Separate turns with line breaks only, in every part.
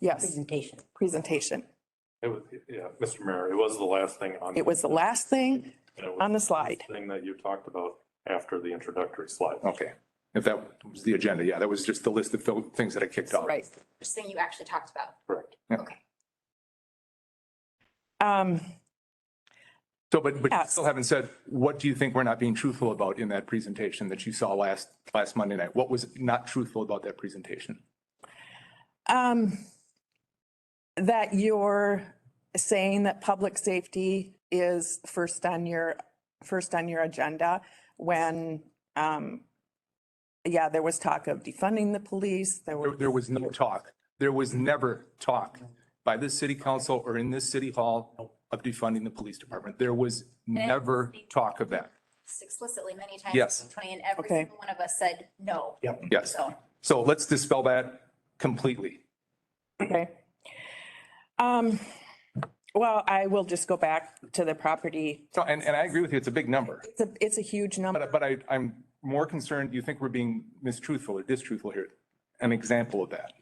Yes,
presentation.
presentation.
It was, yeah, Mr. Mayor, it was the last thing on.
It was the last thing
and it was
on the slide.
Thing that you talked about after the introductory slide.
Okay. If that was the agenda, yeah, that was just the list of fil- things that I kicked off.
Right.
First thing you actually talked about.
Correct.
Okay.
Um,
So, but, but you
Yes.
still haven't said, what do you think we're not being truthful about in that presentation that you saw last, last Monday night? What was not truthful about that presentation?
um, that you're saying that public safety is first on your, first on your agenda when, um, yeah, there was talk of defunding the police. There
There,
were,
there was no talk. There was never talk by this city council or in this city hall of defunding the police department. There was never talk of that.
Explicitly many times.
Yes.
Tony and every
Okay.
single one of us said no. Yep.
Yes.
So
So let's dispel that completely.
okay. Um, well, I will just go back to the property.
So, and, and I agree with you, it's a big number.
It's a, it's a huge number.
But, but I, I'm more concerned, you think we're being mistruthful or distruthful here? An example of that.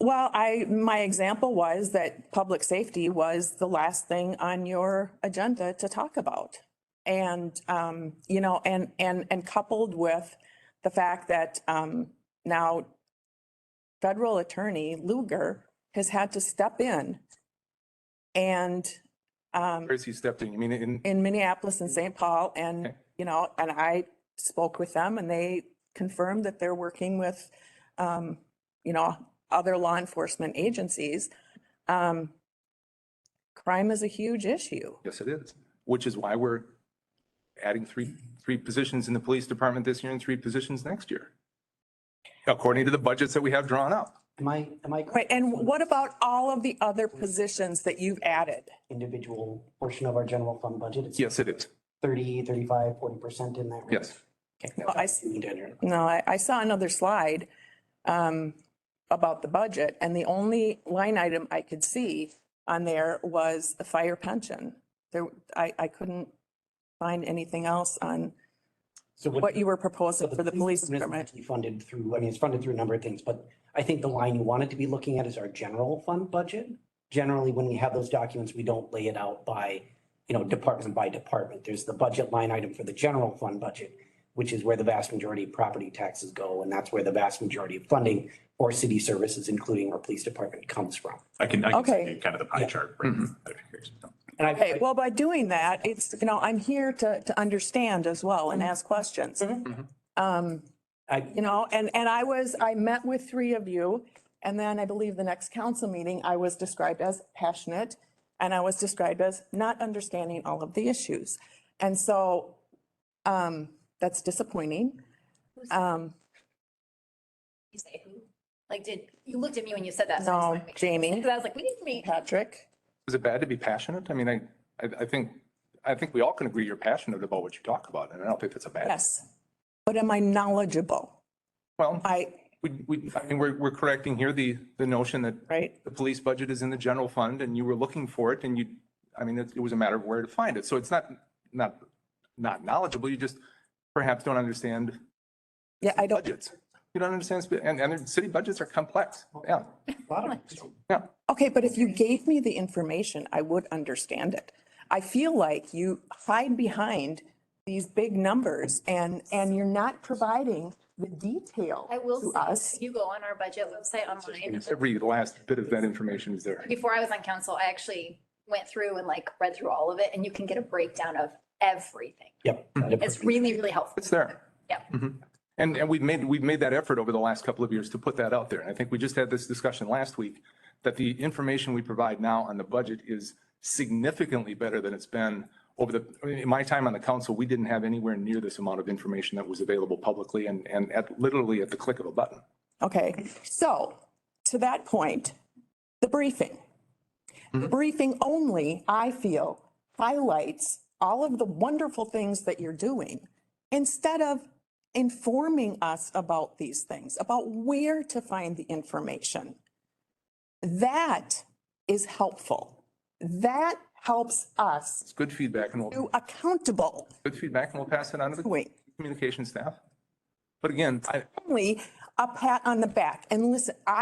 Well, I, my example was that public safety was the last thing on your agenda to talk about. And, um, you know, and, and, and coupled with the fact that, um, now federal attorney Luger has had to step in and, um,
Where's he stepped in? You mean in,
in Minneapolis and St. Paul and,
Okay.
you know, and I spoke with them and they confirmed that they're working with, um, you know, other law enforcement agencies. Um, crime is a huge issue.
yes, it is, which is why we're adding three, three positions in the police department this year and three positions next year. According to the budgets that we have drawn up.
Am I, am I
Right,
correct?
and what about all of the other positions that you've added?
Individual portion of our general fund budget, it's
Yes, it is.
30, 35, 40% in that. range.
Yes.
Well, I, s-
You need to enter.
no, I, I saw another slide, um, about the budget and the only line item I could see on there was the fire pension. There, I, I couldn't find anything else on
So
what you were proposing
so
for the police
is
department.
actually Funded through, I mean, it's funded through a number of things, but I think the line you wanted to be looking at is our general fund budget. Generally, when we have those documents, we don't lay it out by, you know, department by department. There's the budget line item for the general fund budget, which is where the vast majority of property taxes go, and that's where the vast majority of funding for city services, including our police department, comes from.
I can, I can
Okay.
see kind of the pie chart. right? That'd be great.
And I-
Okay, well, by doing that, it's, you know, I'm here to, to understand as well and ask questions. Um,
I,
you know, and, and I was, I met with three of you. And then I believe the next council meeting, I was described as passionate and I was described as not understanding all of the issues. And so, um, that's disappointing. Um,
you say who? Like, did, you looked at me when you said that. so I just
No,
wanted to make sure.
Jamie.
Because I was like, we didn't meet.
Patrick,
Is it bad to be passionate? I mean, I, I, I think, I think we all can agree you're passionate about what you talk about, and I don't think that's a bad.
yes. But am I knowledgeable?
Well,
I,
we, we, I mean, we're, we're correcting here the, the notion that
right?
the police budget is in the general fund and you were looking for it and you, I mean, it it was a matter of where to find it. So it's not, not, not knowledgeable. You just perhaps don't understand
Yeah, I don't.
budgets. You don't understand, sp- and, and the city budgets are complex. Yeah,
a lot of,
yeah.
Okay, but if you gave me the information, I would understand it. I feel like you hide behind these big numbers and, and you're not providing the detail
I will
to
say,
us.
if you go on our budget website online.
Every last bit of that information is there.
Before I was on council, I actually went through and like read through all of it and you can get a breakdown of everything.
yep.
It's really, really helpful.
It's there.
Yeah.
Mhm. And, and we've made, we've made that effort over the last couple of years to put that out there. And I think we just had this discussion last week that the information we provide now on the budget is significantly better than it's been over the, I mean, in my time on the council, we didn't have anywhere near this amount of information that was available publicly and, and at, literally at the click of a button.
Okay, so to that point, the briefing. The briefing only, I feel, highlights all of the wonderful things that you're doing instead of informing us about these things, about where to find the information. That is helpful. That helps us
It's good feedback and
to
we'll,
accountable.
good feedback and we'll pass it on to the
Wait,
communication staff. But again, I,
only a pat on the back. And listen, I.